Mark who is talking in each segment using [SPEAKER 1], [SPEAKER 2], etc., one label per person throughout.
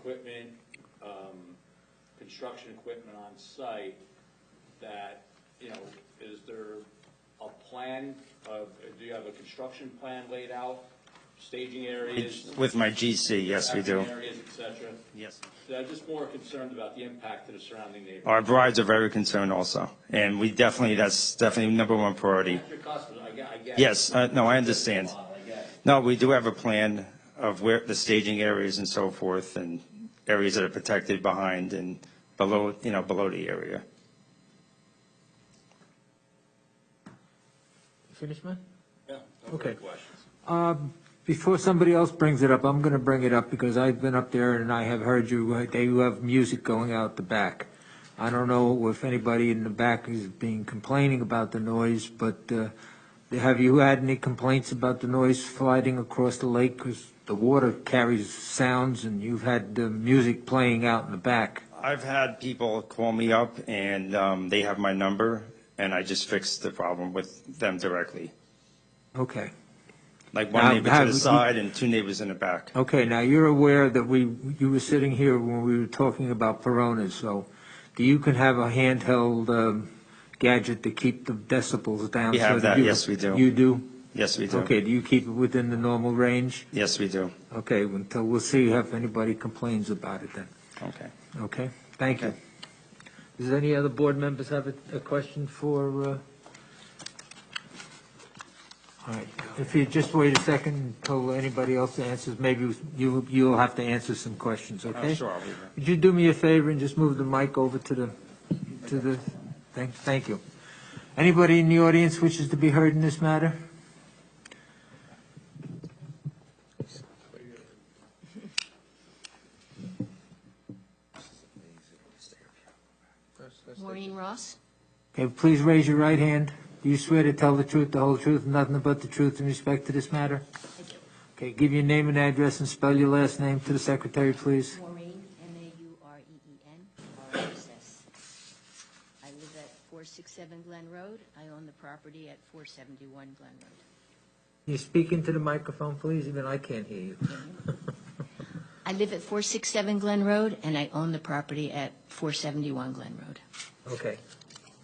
[SPEAKER 1] equipment, um, construction equipment on site, that, you know, is there a plan of, do you have a construction plan laid out, staging areas?
[SPEAKER 2] With my GC, yes, we do.
[SPEAKER 1] parking Areas, et cetera?
[SPEAKER 2] Yes.
[SPEAKER 1] So I'm just more concerned about the impact to the surrounding neighborhood.
[SPEAKER 2] Our brides are very concerned also, and we definitely, that's definitely number one priority.
[SPEAKER 1] That's your customer, I get, I get.
[SPEAKER 2] Yes, uh, no, I understand.
[SPEAKER 1] I get it.
[SPEAKER 2] No, we do have a plan of where the staging areas and so forth, and areas that are protected behind and below, you know, below the area.
[SPEAKER 3] Finish, man?
[SPEAKER 1] Yeah, no further
[SPEAKER 3] Okay.
[SPEAKER 1] questions.
[SPEAKER 3] Um, Before somebody else brings it up, I'm going to bring it up because I've been up there and I have heard you, uh, they have music going out the back. I don't know if anybody in the back is being complaining about the noise, but uh, have you had any complaints about the noise sliding across the lake? Because the water carries sounds and you've had the music playing out in the back.
[SPEAKER 2] I've had people call me up, and um, they have my number, and I just fixed the problem with them directly.
[SPEAKER 3] Okay.
[SPEAKER 2] Like one
[SPEAKER 3] Now,
[SPEAKER 2] neighbor to
[SPEAKER 3] have
[SPEAKER 2] the
[SPEAKER 3] you-
[SPEAKER 2] side and two neighbors in the back.
[SPEAKER 3] Okay, now you're aware that we, you were sitting here when we were talking about Peronas, so do you can have a handheld um, gadget to keep the decibels down?
[SPEAKER 2] We
[SPEAKER 3] so
[SPEAKER 2] have that,
[SPEAKER 3] you-
[SPEAKER 2] yes, we do.
[SPEAKER 3] You do?
[SPEAKER 2] Yes, we do.
[SPEAKER 3] Okay, do you keep it within the normal range?
[SPEAKER 2] Yes, we do.
[SPEAKER 3] Okay, until, we'll see if anybody complains about it then,
[SPEAKER 2] Okay.
[SPEAKER 3] okay? Thank you.
[SPEAKER 2] Okay.
[SPEAKER 3] Does any other board members have a, a question for, uh? All right, if you just wait a second until anybody else answers, maybe you, you'll have to answer some questions, okay?
[SPEAKER 2] Oh, Sure, I'll be there.
[SPEAKER 3] Would you do me a favor and just move the mic over to the, to the, thank, thank you. Anybody in the audience wishes to be heard in this matter?
[SPEAKER 4] Maureen Ross?
[SPEAKER 3] Okay, please raise your right hand. Do you swear to tell the truth, the whole truth, and nothing but the truth in respect to this matter?
[SPEAKER 4] I do.
[SPEAKER 3] Okay, give your name and address and spell your last name to the secretary, please.
[SPEAKER 4] Maureen, E M-A-U-R-E-E-N, R-O-S-S. I live at 467 Glen Road. I own the property at 471 Glen Road.
[SPEAKER 3] Can you speak into the microphone, please? Even I can't hear you.
[SPEAKER 4] I live at 467 Glen Road, and I own the property at 471 Glen Road.
[SPEAKER 3] Okay.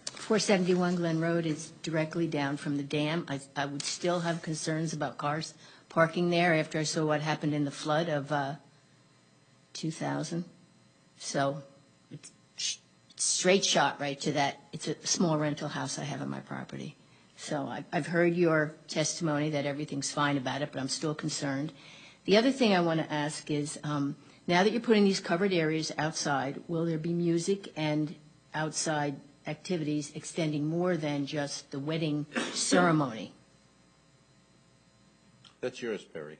[SPEAKER 4] 471 Glen Road is directly down from the dam. I, I would still have concerns about cars parking there after I saw what happened in the flood of uh, 2000. So it's sh- straight shot right to that. It's a small rental house I have on my property. So I- I've heard your testimony that everything's fine about it, but I'm still concerned. The other thing I want to ask is, um, now that you're putting these covered areas outside, will there be music and outside activities extending more than just the wedding ceremony?
[SPEAKER 5] That's yours, Perry.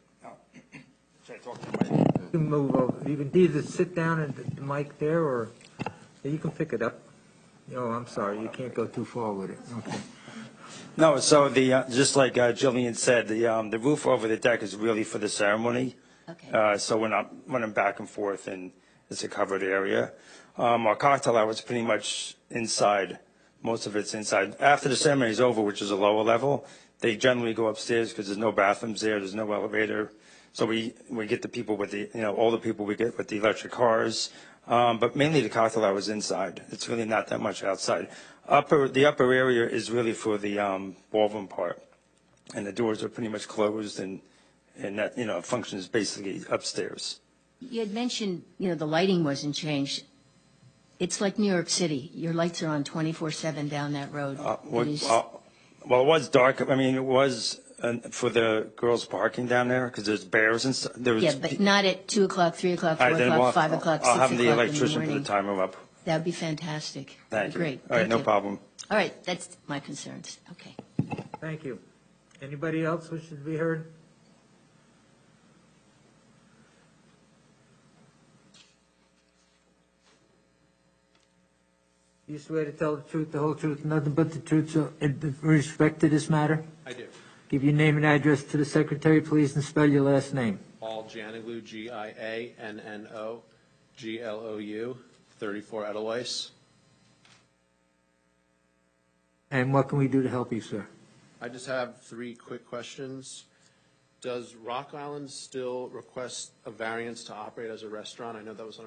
[SPEAKER 2] Should I talk to my-
[SPEAKER 3] You can move over, you can either sit down at the mic there, or you can pick it up. Oh, I'm sorry, you can't go too far with it. Okay.
[SPEAKER 2] No, so the, uh, just like uh, Jillian said, the, um, the roof over the deck is really for the ceremony.
[SPEAKER 4] Okay.
[SPEAKER 2] Uh, So when I'm running back and forth and it's a covered area. Um, Our cocktail hour is pretty much inside, most of it's inside. After the ceremony is over, which is a lower level, they generally go upstairs because there's no bathrooms there, there's no elevator. So we, we get the people with the, you know, all the people we get with the electric cars. Um, But mainly the cocktail hour is inside. It's really not that much outside. Upper, the upper area is really for the um, ballroom part. And the doors are pretty much closed and, and that, you know, functions basically upstairs.
[SPEAKER 4] You had mentioned, you know, the lighting wasn't changed. It's like New York City. Your lights are on 24/7 down that road.
[SPEAKER 2] Uh, what-
[SPEAKER 4] It is-
[SPEAKER 2] uh, Well, it was dark, I mean, it was uh, for the girls parking down there, because there's bears and stuff, there was.
[SPEAKER 4] Yeah, but not at 2 o'clock, 3 o'clock, 4
[SPEAKER 2] All right, then we'll-
[SPEAKER 4] o'clock, 5 o'clock, 6
[SPEAKER 2] I'll
[SPEAKER 4] o'clock
[SPEAKER 2] have
[SPEAKER 4] in
[SPEAKER 2] the
[SPEAKER 4] the
[SPEAKER 2] electrician put the
[SPEAKER 4] morning.
[SPEAKER 2] timer up.
[SPEAKER 4] That'd be fantastic.
[SPEAKER 2] Thank you.
[SPEAKER 4] Great.
[SPEAKER 2] All right,
[SPEAKER 4] Thank
[SPEAKER 2] no
[SPEAKER 4] you.
[SPEAKER 2] problem.
[SPEAKER 4] All right, that's my concerns. Okay.
[SPEAKER 3] Thank you. Anybody else wishes to be heard? You swear to tell the truth, the whole truth, nothing but the truth, so, in respect to this matter?
[SPEAKER 1] I do.
[SPEAKER 3] Give your name and address to the secretary, please, and spell your last name.
[SPEAKER 1] Paul Janiglu, G-I-A-N-N-O-G-L-O-U, 34 Edelweiss.
[SPEAKER 3] And what can we do to help you, sir?
[SPEAKER 6] I just have three quick questions.
[SPEAKER 1] Does Rock Island still request a variance to operate as a restaurant? I know that was on